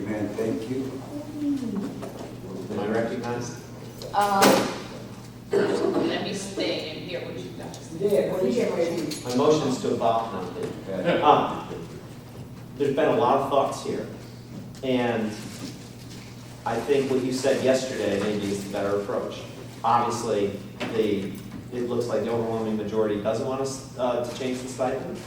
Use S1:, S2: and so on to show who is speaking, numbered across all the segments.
S1: Amen, thank you.
S2: Am I recognized?
S3: Um, Let me stay and hear what you got to say.
S4: Yeah, what is your name?
S2: My motion's to adopt now.
S1: Okay.
S2: Um, There's been a lot of thoughts here, and I think what you said yesterday maybe is the better approach. Obviously, the, it looks like the overwhelming majority doesn't want us uh, to change the stipend.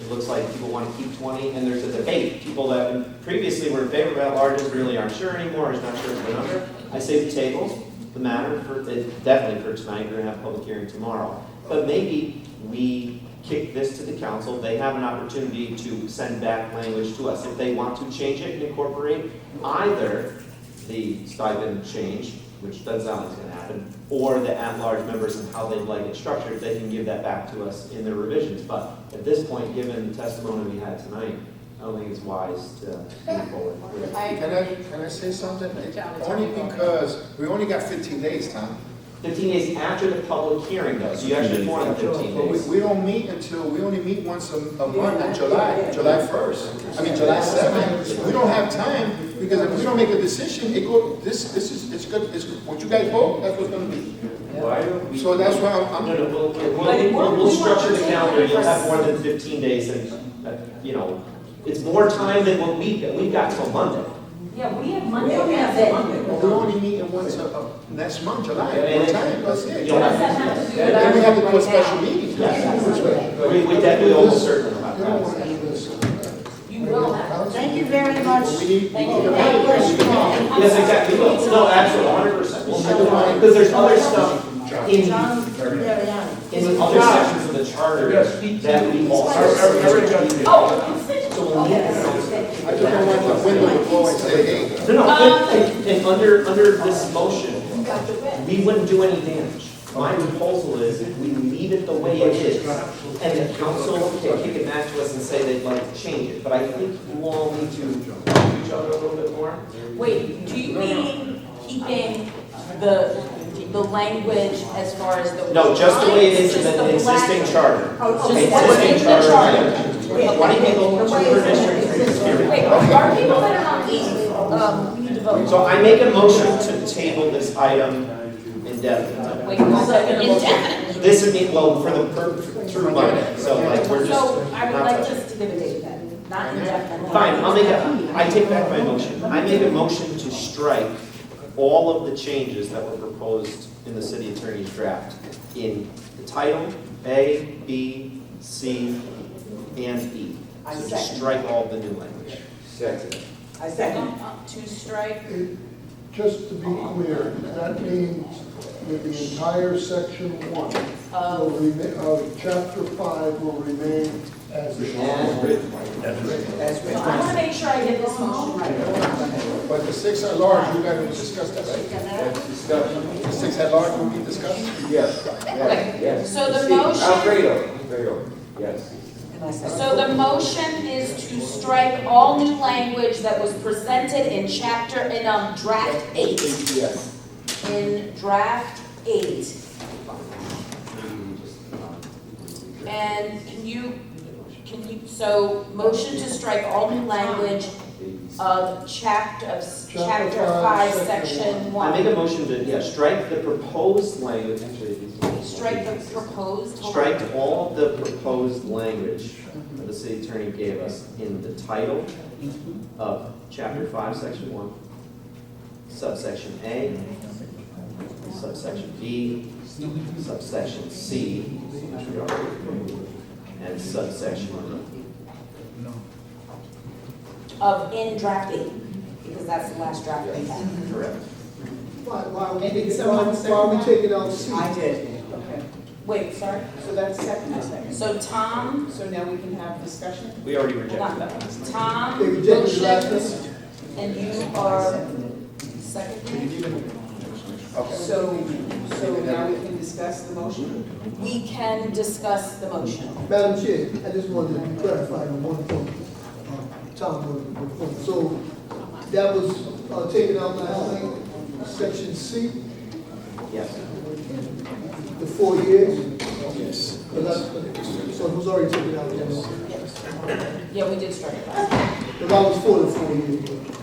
S2: It looks like people want to keep 20, and there's a debate. People that previously were in favor of at-larges really aren't sure anymore, is not sure of the number. I say we table the matter for, it- definitely for tonight, we're going to have a public hearing tomorrow. But maybe we kick this to the council, they have an opportunity to send back language to us if they want to change it and incorporate either the stipend change, which doesn't sound like it's gonna happen, or the at-large members and how they'd like it structured, they can give that back to us in their revisions. But at this point, given the testimony we had tonight, I don't think it's wise to move forward with
S3: I
S5: Can I, can I say something?
S3: Charlie,
S5: Only
S3: Charlie, go ahead.
S5: because, we only got fifteen days, Tom.
S2: Fifteen days after the public hearing though, so you actually have more than fifteen
S5: But we,
S2: days.
S5: we don't meet until, we only meet once a, a month
S4: Yeah.
S5: in July, July first. I mean, July seventh. We don't have time, because if we don't make a decision, it go, this, this is, it's good, it's, what you guys vote, that's what's gonna be.
S2: Why don't we-
S5: So that's why I'm,
S2: No,
S5: I'm,
S2: no, we'll,
S4: But
S2: we'll, we'll,
S4: it won't-
S2: we'll
S4: we won't
S2: structure the
S4: take
S2: calendar, you'll have
S4: it.
S2: more than fifteen days and, uh, you know, it's more time than what we, we've got till Monday.
S6: Yeah, we have
S4: We
S6: Monday.
S4: don't have
S5: but
S4: that.
S5: we only meet in once a, a- next month, July,
S2: And
S5: one
S2: it-
S5: time, that's it.
S2: You'll have-
S5: And then we have to do a special meeting.
S2: We, we definitely almost certain about
S5: We don't wanna
S2: that.
S5: do this.
S3: You will have.
S4: Thank you very much.
S5: We need-
S4: Thank
S5: we
S4: you.
S5: need-
S4: God bless you all.
S2: Yes, exactly, we will. no, absolutely, hundred percent. Because there's other stuff in,
S4: John Mariani.
S2: in the other sections of the charter that we also.
S3: Oh,
S2: So we'll need to-
S5: I just don't want the window to blow and say, hey,
S2: No, no,
S3: Um,
S2: and, and- and under, under this motion,
S3: you got the red.
S2: we wouldn't do any damage. My proposal is if we leave it the way it is, and the council can kick it back to us and say they'd like to change it, but I think you all need to talk to each other a little bit more.
S3: Wait, do you mean keeping the, the language as far as the.
S2: No, just the way it is in
S3: Just
S2: the
S3: black-
S2: existing charter.
S3: Oh, just what's in
S2: Existing
S3: the
S2: charter,
S3: charter.
S2: twenty people, two per district, three per area.
S3: Wait, are people that are on these, um, we need to vote?
S2: So I make a motion to table this item indefinitely.
S3: Wait, one second. Indefinite.
S2: This would be, well, for the, per- through Monday, so like, we're just.
S6: So I would
S2: not
S6: like
S2: touching.
S6: just to give a date then, not indefinitely.
S2: Fine, I'll make a, I take back my motion. I make a motion to strike all of the changes that were proposed in the city attorney's draft in the title, A, B, C, and E.
S4: I
S2: So just
S4: second.
S2: strike all the new language.
S1: Second.
S4: I second.
S3: Um, To strike,
S7: Just to be clear, that means that the entire section one will
S3: um,
S7: remain, of chapter five will remain as is.
S4: That's
S6: So I want
S4: right.
S6: to make sure I get this motion right.
S5: but the six at large, you guys will discuss that, right? The six at large will be discussed?
S1: Yes, yes, yes.
S3: So the
S1: Steve,
S3: motion-
S1: Alfredo, Alfredo, yes.
S4: And I second.
S3: so the motion is to strike all new language that was presented in chapter, in, um, draft eight.
S5: Yes.
S3: In draft eight. And can you, can you, so motion to strike all new language of chapter, of s-
S7: Chapter
S3: chapter
S7: five,
S3: five,
S7: section
S3: section
S2: I make
S3: one.
S2: a motion to, yeah, strike the proposed language, actually, these-
S3: Strike the proposed. hold on.
S2: Strike all the proposed language that the city attorney gave us in the title of chapter five, section one, subsection A, subsection B, subsection C, which we already approved, and subsection E.
S3: Of in draft eight, because that's the last draft we have.
S2: Correct.
S8: Why, why we
S4: Maybe
S8: take it,
S4: someone
S8: why,
S4: second
S8: why we
S4: that?
S8: take it out C?
S4: I did.
S8: Okay,
S3: Wait, sorry.
S8: so that's second, I second.
S3: So Tom,
S8: So now we can have discussion?
S2: We already
S3: hold
S2: rejected
S3: on.
S2: that last time.
S8: They
S3: Tom,
S8: rejected the last
S3: motion,
S8: one?
S3: and you are second.
S5: Okay.
S8: So, so now we can discuss the motion?
S3: We can discuss the motion.
S8: Madam Chair, I just wanted to clarify on one point, Tom, one point. So that was, uh, taken out last night, section C,
S2: Yes.
S8: the four years? Yes. So it was already taken out, yes.
S3: Yeah, we did strike it last time.
S8: Because I was for the four years, but-